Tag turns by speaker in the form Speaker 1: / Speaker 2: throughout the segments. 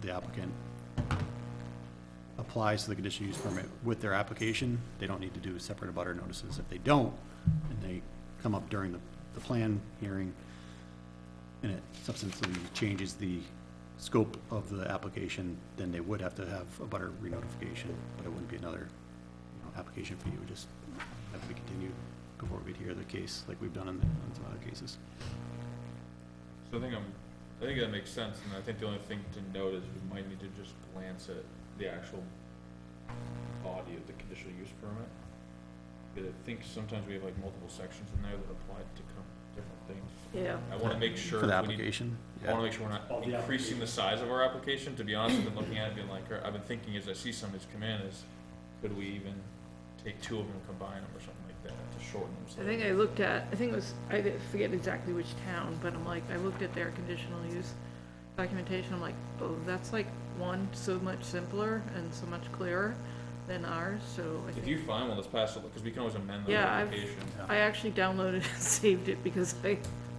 Speaker 1: the applicant applies to the conditional use permit with their application, they don't need to do separate abutter notices. If they don't, and they come up during the, the plan hearing, and it substantially changes the scope of the application, then they would have to have a butter re-notification, but it wouldn't be another, you know, application for you, it would just have to be continued before we'd hear the case, like we've done in, in some other cases.
Speaker 2: So I think I'm, I think that makes sense, and I think the only thing to note is we might need to just glance at the actual body of the conditional use permit. Because I think sometimes we have like multiple sections in there that apply to com- different things.
Speaker 3: Yeah.
Speaker 2: I wanna make sure.
Speaker 1: For the
Speaker 2: we need-
Speaker 1: application?
Speaker 2: I wanna
Speaker 1: Yeah.
Speaker 2: make sure we're not increasing the size of our application, to be honest, I've been looking at it being like, I've been thinking as I see somebody's come in is, could we even take two of them, and combine them or something like that to shorten them? so
Speaker 3: I
Speaker 2: that-
Speaker 3: think I looked at, I think it was, I didn't- forget exactly which town, but I'm like, I looked at their conditional use documentation, I'm like, oh, that's like one so much simpler and so much clearer than ours, so I
Speaker 2: If you
Speaker 3: think.
Speaker 2: find one that's passable, because we can always amend the
Speaker 3: Yeah, I've-
Speaker 2: application.
Speaker 3: I actually downloaded and saved it because I,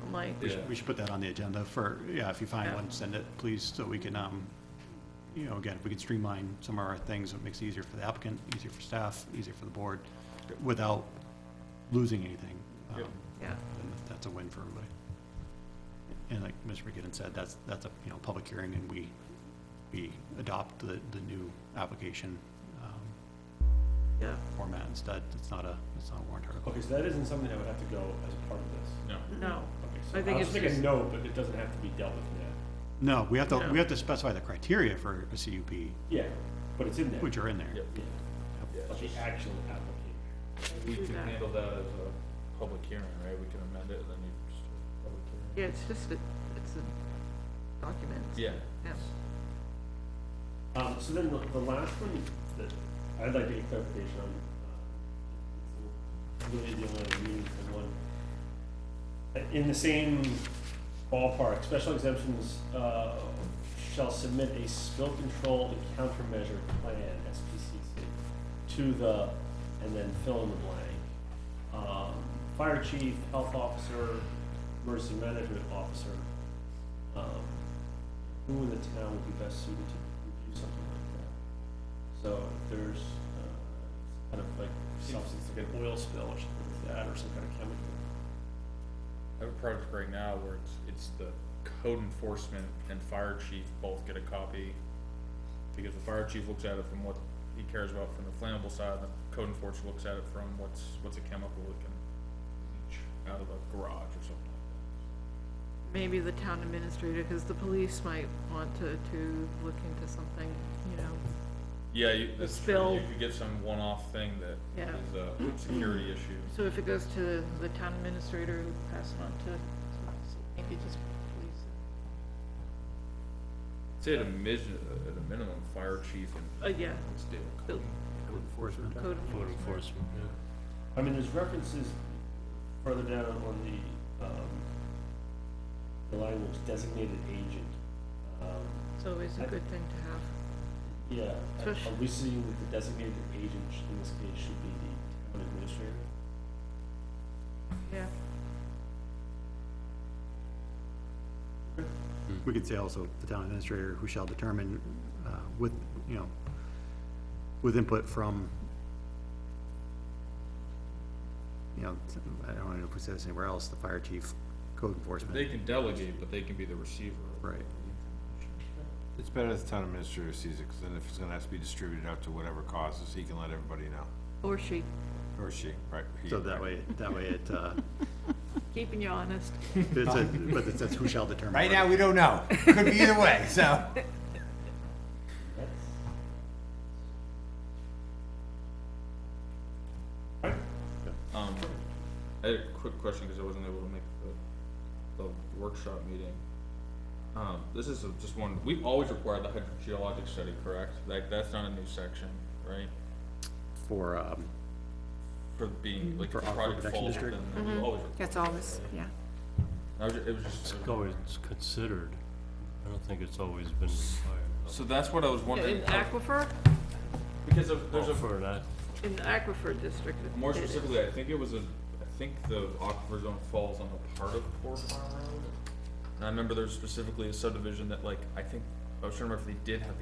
Speaker 3: I'm like,
Speaker 1: We
Speaker 2: Yeah.
Speaker 1: should, we should put that on the agenda for, yeah, if you find
Speaker 3: Yeah.
Speaker 1: one, send it, please, so we can, um, you know, again, if we can streamline some of our things, it makes it easier for the applicant, easier for staff, easier for the board, without losing anything.
Speaker 2: Yep.
Speaker 1: um,
Speaker 3: yeah,
Speaker 1: then that's a win for everybody. And like Mr. McGinnon said, that's, that's a, you know, public hearing and we, we adopt the, the new application um,
Speaker 3: yeah.
Speaker 1: format instead. It's not a, it's not a warrant article.
Speaker 4: Okay, so that isn't something that would have to go as part of this.
Speaker 2: No.
Speaker 3: No,
Speaker 4: Okay,
Speaker 3: I
Speaker 4: so
Speaker 3: think
Speaker 4: I was
Speaker 3: it's just-
Speaker 4: thinking no, but it doesn't have to be dealt with now.
Speaker 1: No, we have to,
Speaker 3: No.
Speaker 1: we have to specify the criteria for a CUP,
Speaker 4: Yeah, but it's in there.
Speaker 1: which are in there.
Speaker 2: Yep.
Speaker 4: Yeah,
Speaker 2: Yeah,
Speaker 4: But
Speaker 2: it's
Speaker 4: the
Speaker 2: just-
Speaker 4: actual application.
Speaker 2: We
Speaker 3: Do
Speaker 2: can
Speaker 3: that.
Speaker 2: handle that as a public hearing, right? We can amend it and then you just. public
Speaker 3: yeah, it's just, a it's a document.
Speaker 2: hearing.
Speaker 3: Yeah.
Speaker 4: Um, so then the, the last one that I'd like to get clarification on, uh, it's really the only meaningful one. Uh, In the same ballpark, special exemptions, uh, shall submit a spill control and countermeasure plan, SPCC, to the, and then fill in the blank. Um, fire chief, health officer, emergency management officer. Um, who in the town would be best suited to review something like that? So if there's, uh, kind of like substance, like an oil spill or something like that, or some kind of chemical.
Speaker 2: I have a project right now where it's, it's the code enforcement and fire chief both get a copy. Because the fire chief looks at it from what he cares about from the flammable side, and the code enforcement looks at it from what's, what's a chemical that can leach out of a garage or something like
Speaker 3: Maybe the town administrator, because the police might want to, to look into something, you know,
Speaker 2: that. Yeah, you, that's true. You
Speaker 3: spill.
Speaker 2: could get some one-off thing that
Speaker 3: Yeah.
Speaker 2: is a security issue.
Speaker 3: So if it goes to the town administrator, who pass it on to, so maybe just police.
Speaker 2: Say at a mis- at a minimum, fire chief and.
Speaker 3: Uh, yeah.
Speaker 2: Let's do it.
Speaker 3: Bill- Code enforcement.
Speaker 4: I mean, there's references further down on the, um, the language designated agent. Um,
Speaker 3: It's always a good thing to have.
Speaker 4: Yeah, are-
Speaker 3: Especially-
Speaker 4: are we seeing that the designated agent sh- in this case should be the town administrator?
Speaker 3: Yeah.
Speaker 1: We could say also the town administrator who shall determine uh, with, you know, with input from, you know, I don't know if we said this anywhere else, the fire chief, code
Speaker 2: They
Speaker 1: enforcement.
Speaker 2: can delegate, but they can be the receiver.
Speaker 1: Right.
Speaker 5: It's better if the town administrator sees it, because then if it's gonna have to be distributed out to whatever causes, he can let everybody know,
Speaker 3: Or she,
Speaker 5: or she, right? he,
Speaker 1: So that
Speaker 5: right.
Speaker 1: way, that way it, uh,
Speaker 3: keeping you honest.
Speaker 1: it's a- but it says who shall determine.
Speaker 5: Right now, we don't know. Could be either way, so.
Speaker 4: That's. Right,
Speaker 2: Um, I had a quick question, cause I wasn't able to make the, the workshop meeting. Um, this is a- just one, we've always required the hydrogeologic study, correct? Like, that's not a new section, right?
Speaker 1: For, um,
Speaker 2: For being, like,
Speaker 1: Mm-hmm. For
Speaker 2: if the
Speaker 1: aquifer protection
Speaker 2: project falls, then
Speaker 1: district?
Speaker 2: we always.
Speaker 3: Mm-hmm.
Speaker 6: That's always, yeah.
Speaker 2: I was ju- it was just,
Speaker 7: It's always considered. I don't think it's always been required.
Speaker 2: so that's what I was wondering,
Speaker 3: In aquifer,
Speaker 2: because of,
Speaker 1: Oh,
Speaker 2: there's a.
Speaker 7: For that,
Speaker 3: in the aquifer district. it-
Speaker 2: More
Speaker 3: it is.
Speaker 2: specifically, I think it was a, I think the aquifer zone falls on a part of Poor Farm Road. And I remember there's specifically a subdivision that like, I think I was trying to remember if they did have the